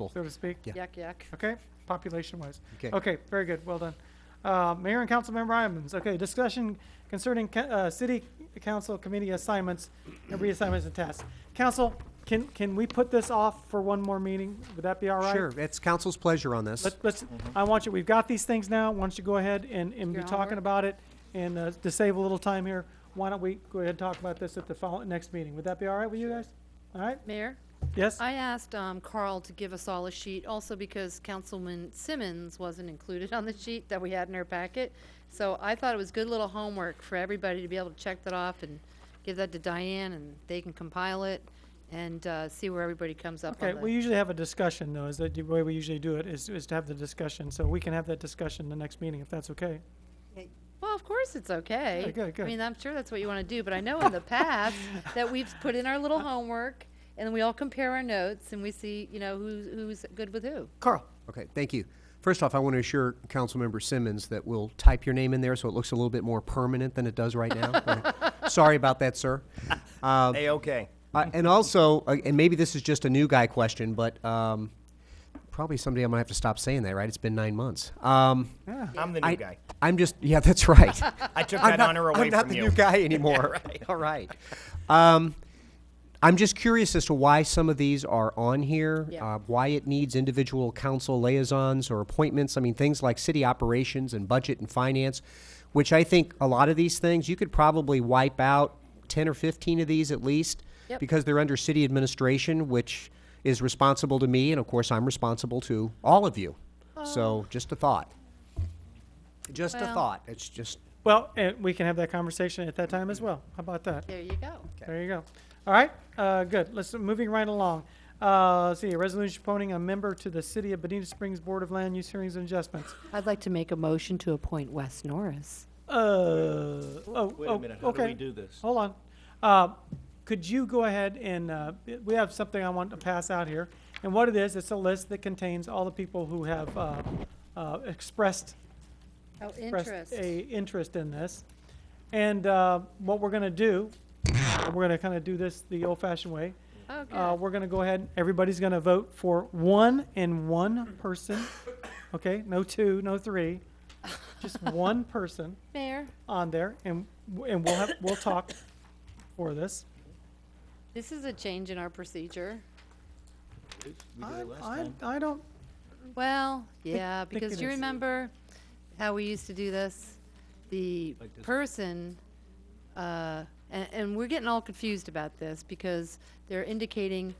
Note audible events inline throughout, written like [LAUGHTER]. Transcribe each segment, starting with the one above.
Both. so to speak? Yeah. Yuck, yuck. Okay, population-wise. Okay. Okay, very good, well done. Uh, Mayor and council member items, okay, discussion concerning, ca- uh, city council committee assignments and reassignments and tasks. Council, can, can we put this off for one more meeting? Would that be all right? Sure, Mm-hmm. it's council's pleasure on this. Let's, let's, I want you, we've got these things now, why don't you go ahead and, and be Your talking homework. about it? And, uh, to save a little time here, why don't we go ahead and talk about this at the follow, next meeting? Would that be all right with you guys? All right, Mayor, yes? I asked um, Carl to give us all a sheet, also because Councilman Simmons wasn't included on the sheet that we had in our packet. So I thought it was good little homework for everybody to be able to check that off and give that to Diane, and they can compile it and uh, see where everybody comes up Okay, on we the. usually have a discussion though, is that the way we usually do it, is, is to have the discussion, so we can have that discussion the next meeting if that's okay. Well, of course, it's okay. Good, good, I good. mean, I'm sure that's what you want to do, but I know in [LAUGHS] the past that we've put in our little homework, and we all compare our notes, and we see, you know, who's, who's good with who. Carl. Okay, thank you. First off, I want to assure Councilmember Simmons that we'll type your name in there so it looks a little bit more permanent than it does right [LAUGHS] now. Uh, Sorry about that, sir. Uh, Hey, okay. Uh, and also, uh, and maybe this is just a new guy question, but um, probably someday I'm gonna have to stop saying that, right? It's been nine months. Um, I'm the new I, guy. I'm just, yeah, that's right. I took I'm that not- honor away I'm not from the you. new guy anymore. All right. [LAUGHS] Um, I'm just curious as to why some of these are on here, Yeah. uh, why it needs individual council liaisons or appointments. I mean, things like city operations and budget and finance, which I think a lot of these things you could probably wipe out 10 or 15 of these at least Yep. because they're under city administration, which is responsible to me, and of course, I'm responsible to all of you. So, just a thought. Just a Well- thought. It's just. Well, and we can have that conversation at that time as well, how about that? There you go. There you go. All right, uh, good. Let's, moving right along. Uh, let's see, a resolution appointing a member to the City of Benita Springs Board of Land Use Hearings and Adjustments. I'd like to make a motion to appoint Wes Norris. Uh, oh, oh, Wait a minute, how do we okay. do this? Hold on. Uh, could you go ahead and, uh, we have something I want to pass out here. And what it is, it's a list that contains all the people who have, uh, uh, expressed Oh, expressed interest. a interest in this. And uh, what we're going to do, and we're going to kind of do this the old-fashioned way. Uh, Okay. We're going to go ahead, everybody's going to vote for one and one person, okay? No two, no three, just one person Mayor, on there, and, and we'll have, we'll talk for this. this is a change in our procedure. We did I, it last I- time. I don't, Well, yeah, think because it you is. remember how we used to do this? The Like this. person, uh, and, and we're getting all confused about this because they're indicating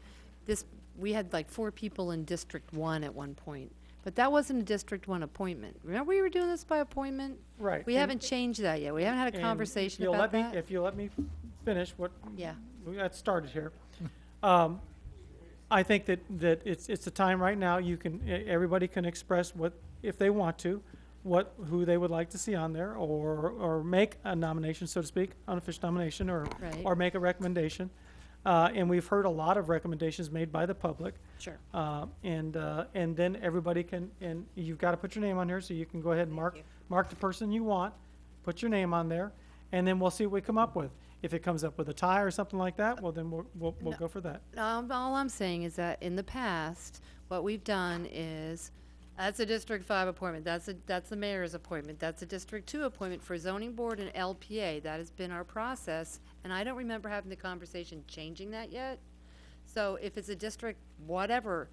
this, we had like four people in District One at one point. But that wasn't a District One appointment. Remember we were doing this by appointment? right. We and- haven't changed that yet. We haven't had a and conversation you'll let about me- that. If you'll let me finish what, Yeah. we got started here. Um, I think that, that it's, it's a time right now, you can, e- everybody can express what, if they want to, what, who they would like to see on there, or, or make a nomination, so to speak, unofficial nomination, or, Right. or make a recommendation. Uh, and we've heard a lot of recommendations made by the public. Sure. Uh, and, uh, and then everybody can, and you've got to put your name on here, so you can go ahead and mark, mark the person you want, put your name on there, and then we'll see what we come up with. If it comes up with a tie or something like that, well, then we'll, we'll, we'll go for that. Um, all I'm saying is that in the past, what we've done is, that's a District Five appointment, that's a, that's the mayor's appointment, that's a District Two appointment for zoning board and LPA, that has been our process, and I don't remember having the conversation changing that yet. So if it's a district, whatever,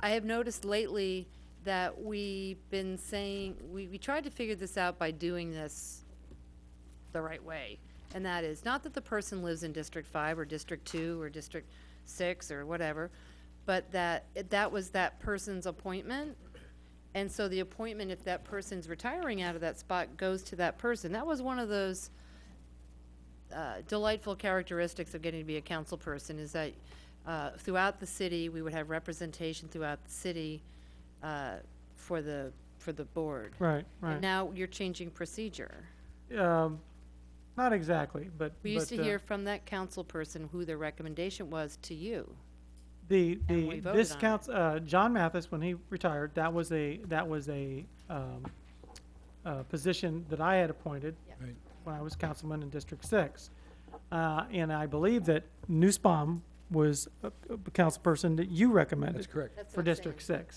I have noticed lately that we've been saying, we, we tried to figure this out by doing this the right way. And that is not that the person lives in District Five or District Two or District Six or whatever, but that it- that was that person's appointment. And so the appointment, if that person's retiring out of that spot, goes to that person. That was one of those uh, delightful characteristics of getting to be a council person is that uh, throughout the city, we would have representation throughout the city uh, for the, for the board. Right, And right. now you're changing procedure. Um, not exactly, but. We used but, to uh, hear from that council person who their recommendation was to you. The, and we the, voted this on it. counts, uh, John Mathis, when he retired, that was a, that was a, um, uh, position that I had appointed Yeah. Right. when I was councilman in District Six. Uh, and I believe that Newsbaum was a, a council person that you recommended That's correct. That's what for I'm saying. District Six.